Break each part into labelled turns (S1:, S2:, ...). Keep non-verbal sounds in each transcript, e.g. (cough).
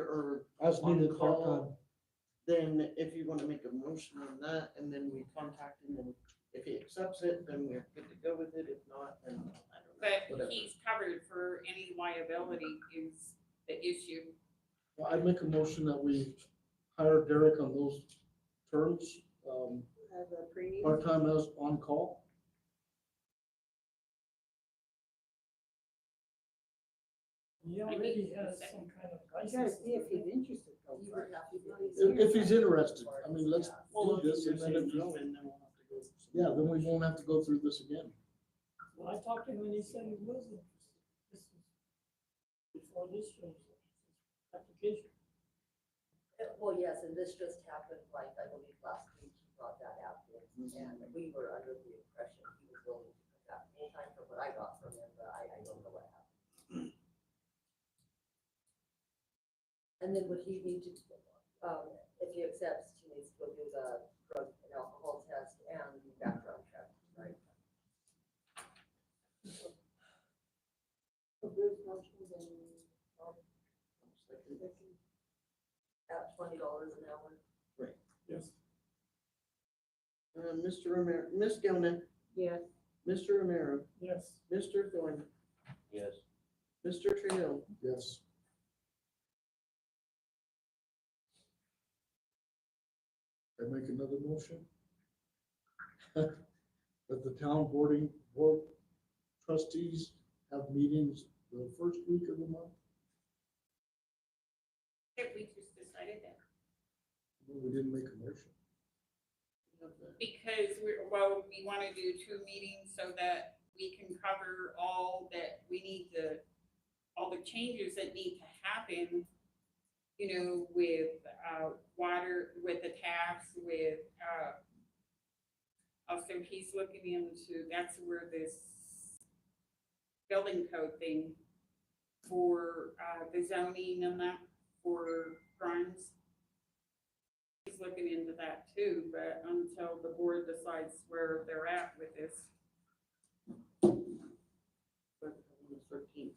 S1: or
S2: As needed,
S1: on
S2: part-time.
S1: call, then if you want to make a motion on that, and then we contact him, and if he accepts it, then we're good to go with it, if not, then I don't know.
S3: But
S1: whatever.
S3: he's covered for any liability is the issue.
S2: Well, I make a motion that we hire Derek on those terms, um,
S4: As a pre.
S2: part-time as on-call.
S5: He already has some kind of
S4: You gotta
S5: license.
S4: see if he's interested though.
S1: You would
S4: first.
S1: have to do
S4: If
S2: If,
S4: he's
S2: if he's
S4: interested.
S2: interested, I mean, let's
S1: Well,
S2: do
S1: if
S2: this
S1: you're
S2: and then if
S1: saying no, then
S2: no,
S1: we'll have to go.
S2: yeah, then we won't have to go through this again.
S5: Well, I talked to him and he said he was interested. This is Before this shows up, application.
S6: Uh, Well, yes, and this just happened, like, I believe last week, he brought that out, there,
S2: Mm-hmm.
S6: and we were under the impression he was willing to come back full-time from what I got from him, but I, I don't know what happened. And then would he need to, um, if he accepts, he needs to go do the drug and alcohol test and background check, right?
S4: So Bruce motions and, um, second.
S6: At twenty dollars an hour.
S5: Yes.
S1: Uh, Mr. Romero, Ms. Gilman,
S4: Yes,
S1: Mr. Romero,
S5: Yes.
S1: Mr. Thorne,
S7: Yes.
S1: Mr. Trill,
S2: Yes. I make another motion? (laughs) That the town boarding, board trustees have meetings the first week of the month?
S3: If we just decided that,
S2: No, We didn't make a motion.
S3: because we're, well, we want to do two meetings so that we can cover all that we need to, all the changes that need to happen, you know, with, uh, water, with the tax, with, uh, also he's looking into, that's where this building code thing for, uh, the zoning and that, for crimes he's looking into that too, but until the board decides where they're at with this.
S1: thirteenth.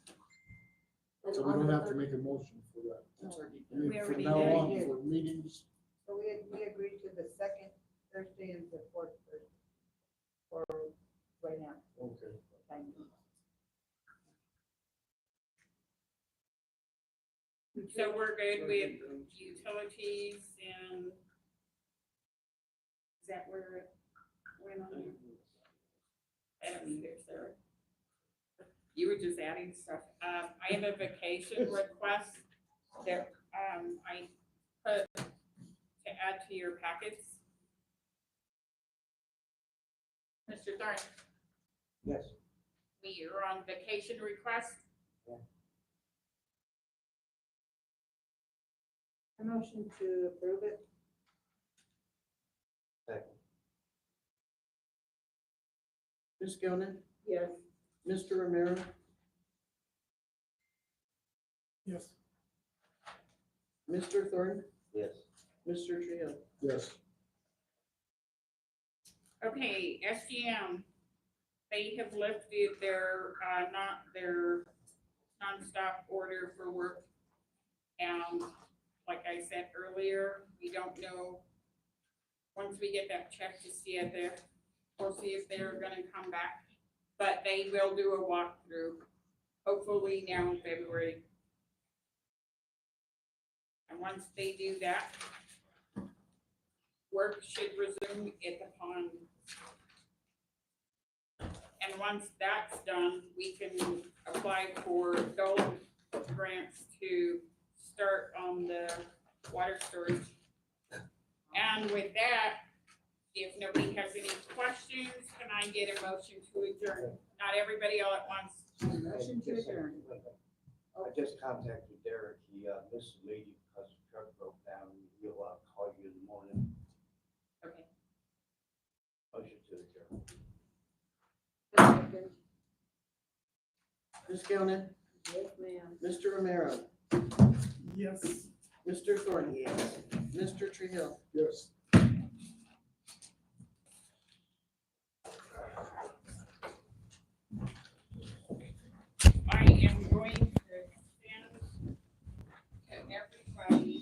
S6: And
S2: So we
S6: on
S2: don't
S6: the
S2: have to
S6: thir-
S2: make a motion for that.
S1: That's already
S2: I
S1: done.
S2: mean,
S3: We
S2: From
S3: already
S2: now
S3: did.
S2: on, for meetings,
S4: so we, we agreed to the second Thursday and the fourth Thursday. For right now,
S2: okay.
S4: thank you.
S3: So we're good with utilities and is that where it went on? I don't either, sir. You were just adding stuff. Um, I have a vacation request that, um, I put to add to your packets. Mr. Thorne,
S1: Yes.
S3: we are on vacation request.
S4: A motion to approve it.
S1: Ms. Gilman,
S4: Yes.
S1: Mr. Romero,
S5: Yes.
S1: Mr. Thorne,
S7: Yes.
S1: Mr. Trill.
S2: Yes,
S3: Okay, SGM, they have lifted their, uh, not, their nonstop order for work. And like I said earlier, we don't know, once we get that check to see if they're, we'll see if they're gonna come back. But they will do a walkthrough, hopefully now in February. And once they do that, work should resume at the pond. And once that's done, we can apply for gold grants to start on the water storage. And with that, if nobody has any questions, can I get a motion to adjourn? Not everybody all at once.
S4: Motion to adjourn.
S7: I just contacted Derek, he, uh, missed a meeting because the truck broke down, he'll, uh, call you in the morning,
S3: Okay.
S7: motion to adjourn.
S4: Second.
S1: Ms. Gilman,
S4: Yes, ma'am.
S1: Mr. Romero,
S5: Yes.
S1: Mr. Thorne, Mr. Trill.
S2: yes.
S3: I am